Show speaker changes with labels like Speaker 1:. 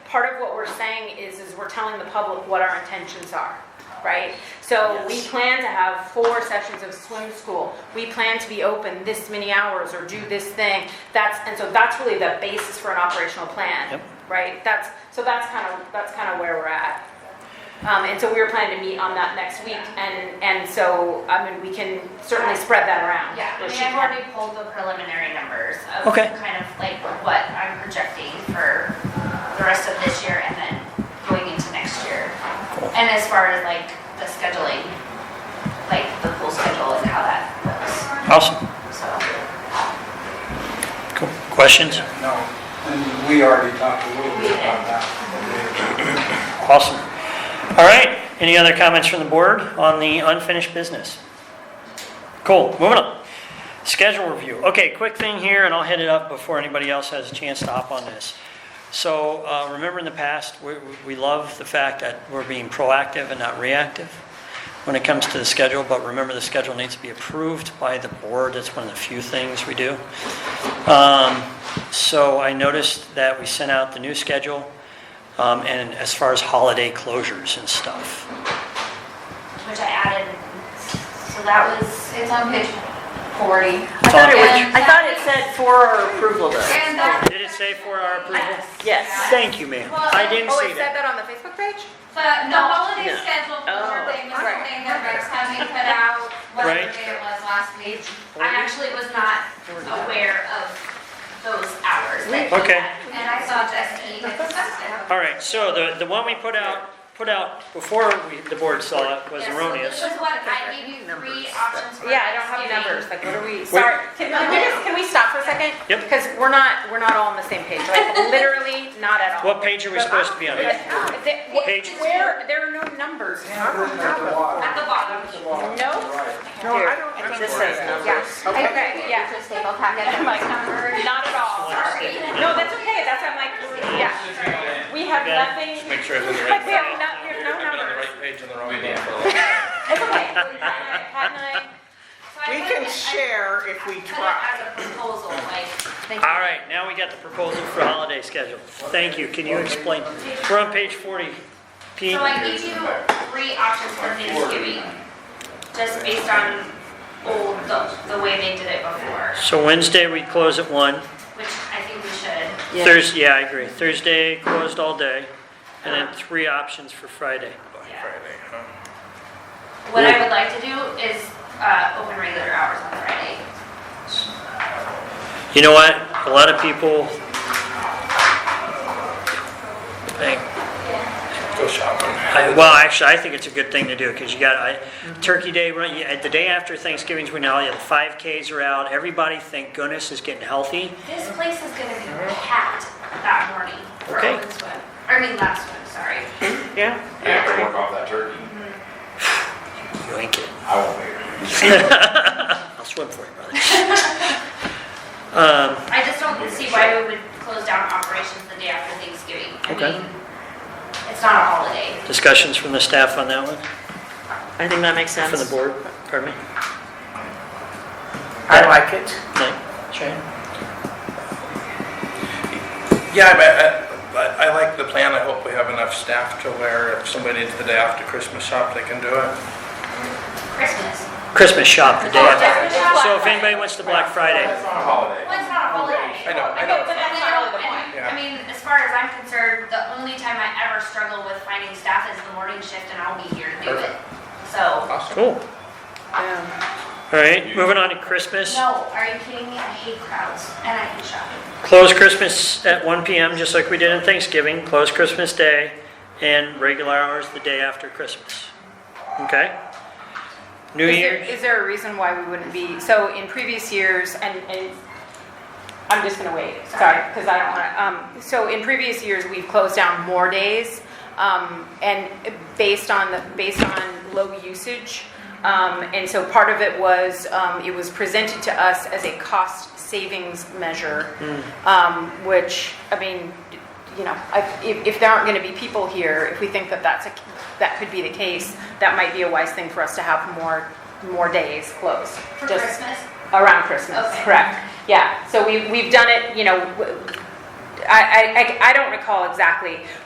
Speaker 1: we're saying is, is we're telling the public what our intentions are, right? So we
Speaker 2: Yes.
Speaker 1: plan to have four sessions of swim school. We plan to be open this many hours or do this thing. That's, and so that's really the basis for an operational plan,
Speaker 2: Yep.
Speaker 1: right? That's, so that's kind of, that's kind of where we're at. Um, and so we were planning to meet on that next week, and, and so, I mean, we can certainly spread that around.
Speaker 3: Yeah, I
Speaker 1: Or
Speaker 3: mean,
Speaker 1: she can.
Speaker 3: I've already pulled the preliminary numbers of
Speaker 2: Okay.
Speaker 3: kind of like what I'm projecting for uh, the rest of this year and then going into next year. And as far as like the scheduling, like the pool schedule and how that looks,
Speaker 2: Awesome.
Speaker 3: so.
Speaker 2: Cool. Questions?
Speaker 4: No, and we already talked a little
Speaker 3: We
Speaker 4: bit
Speaker 3: did.
Speaker 4: about that.
Speaker 2: Awesome. All right. Any other comments from the board on the unfinished business? Cool. Moving on. Schedule review. Okay, quick thing here, and I'll hit it up before anybody else has a chance to hop on this. So uh, remember in the past, we, we love the fact that we're being proactive and not reactive when it comes to the schedule, but remember the schedule needs to be approved by the board. That's one of the few things we do. Um, So I noticed that we sent out the new schedule, um, and as far as holiday closures and stuff.
Speaker 3: Which I added, so that was, it's on page forty.
Speaker 5: I thought it
Speaker 3: And
Speaker 5: was, I thought it said for our approval though.
Speaker 3: And that.
Speaker 2: Did it say for our approval?
Speaker 5: Yes.
Speaker 2: Thank you, ma'am. I didn't
Speaker 1: Oh, it
Speaker 2: see
Speaker 1: said that
Speaker 2: that.
Speaker 1: on the Facebook page?
Speaker 3: The, the holiday
Speaker 5: No.
Speaker 3: schedule
Speaker 5: Oh.
Speaker 3: for thing was
Speaker 1: Right.
Speaker 3: something that Rex had me put out, whatever
Speaker 2: Right.
Speaker 3: day it was last week. I actually was not aware of those hours that he
Speaker 2: Okay.
Speaker 3: had. And I saw Justine had discussed it.
Speaker 2: All right, so the, the one we put out, put out before we, the board saw it was
Speaker 3: Yes, so
Speaker 2: erroneous.
Speaker 3: This is what, I gave you three options for.
Speaker 1: Yeah, I don't have numbers,
Speaker 3: Thanksgiving.
Speaker 1: like, what are we, sorry, can we just, can we stop for a second?
Speaker 2: Yep.
Speaker 1: Because we're not, we're not all on the same page, like, literally not at all.
Speaker 2: What page are we supposed to be on?
Speaker 1: But, uh, they- wh-
Speaker 2: Page-
Speaker 1: Where, there are no numbers.
Speaker 3: At the bottom.
Speaker 1: No?
Speaker 5: No, I don't. It just says numbers.
Speaker 1: Okay, yeah,
Speaker 3: Just table packet, I'm like, number,
Speaker 1: not at all, sorry. No, that's okay, that's, I'm like, yeah, we have
Speaker 2: Okay.
Speaker 1: nothing,
Speaker 6: Just make sure I was on the
Speaker 1: like,
Speaker 6: right.
Speaker 1: we have no, there's no
Speaker 6: I've been on the
Speaker 1: numbers.
Speaker 6: right page on the wrong one.
Speaker 1: It's okay. Pat and I-
Speaker 3: so I
Speaker 5: We
Speaker 3: put
Speaker 5: can
Speaker 3: it- I
Speaker 5: share if we
Speaker 3: Put it
Speaker 5: try.
Speaker 3: as a proposal, like.
Speaker 2: All right, now we got the proposal for holiday schedule. Thank you. Can you explain? We're on page 40. Pete?
Speaker 3: So I gave you three options for Thanksgiving, just based on old, the, the way they did it before,
Speaker 2: So Wednesday, we close at one.
Speaker 3: which I think we should.
Speaker 5: Yeah.
Speaker 2: Thursday, yeah, I agree. Thursday, closed all day, and then three options for Friday.
Speaker 6: Friday, huh?
Speaker 3: What I would like to do is, uh, open regular hours on Friday.
Speaker 2: You know what? A lot of people think,
Speaker 6: Go shopping.
Speaker 2: I- well, actually, I think it's a good thing to do because you got I- Turkey Day, right, you- the day after Thanksgiving's when all the 5Ks are out. Everybody, thank goodness, is getting healthy.
Speaker 3: This place is gonna be packed that morning for
Speaker 2: Okay.
Speaker 3: open swim, I mean, last swim, sorry.
Speaker 5: Yeah.
Speaker 7: You have to work off that turkey.
Speaker 2: You ain't kidding.
Speaker 7: I won't be here.
Speaker 2: I'll swim for you, brother. Um,
Speaker 3: I just don't see why we would close down operations the day after Thanksgiving. I
Speaker 2: Okay.
Speaker 3: mean, It's not a holiday.
Speaker 2: Discussions from the staff on that one,
Speaker 5: I think that makes sense.
Speaker 2: from the board, pardon me?
Speaker 8: I like it.
Speaker 2: Nick, Shane?
Speaker 6: Yeah, but I, I like the plan. I hope we have enough staff to where if somebody needs the day after Christmas shop, they can do it.
Speaker 3: Christmas.
Speaker 2: Christmas shop the day
Speaker 3: Oh,
Speaker 2: after.
Speaker 3: Christmas shop.
Speaker 2: So if anybody wants to Black Friday,
Speaker 7: It's not a holiday.
Speaker 3: Well, it's not a holiday.
Speaker 6: I know, I
Speaker 1: Okay,
Speaker 6: know.
Speaker 1: but that's not really the point.
Speaker 3: And, I mean, as far as I'm concerned, the only time I ever struggle with finding staff is the morning shift and I'll be here to do it.
Speaker 6: Perfect.
Speaker 3: So,
Speaker 6: Awesome.
Speaker 2: Cool.
Speaker 5: Yeah.
Speaker 2: All right, moving on to Christmas.
Speaker 3: no, are you kidding me? I hate crowds and I hate shopping.
Speaker 2: Close Christmas at 1 PM, just like we did in Thanksgiving, close Christmas Day, and regular hours the day after Christmas. Okay? New
Speaker 1: Is there,
Speaker 2: Year's,
Speaker 1: is there a reason why we wouldn't be, so in previous years, and, and I'm just gonna wait, sorry, because I don't wanna, um, so in previous years, we've closed down more days, um, and based on the, based on low usage. Um, and so part of it was, um, it was presented to us as a cost savings measure, um, which, I mean, you know, I- if, if there aren't gonna be people here, if we think that that's a, that could be the case, that might be a wise thing for us to have more, more days closed.
Speaker 3: For
Speaker 1: just-
Speaker 3: Christmas,
Speaker 1: Around Christmas,
Speaker 3: Okay.
Speaker 1: correct. Yeah, so we, we've done it, you know, w- I, I- I- I don't recall exactly,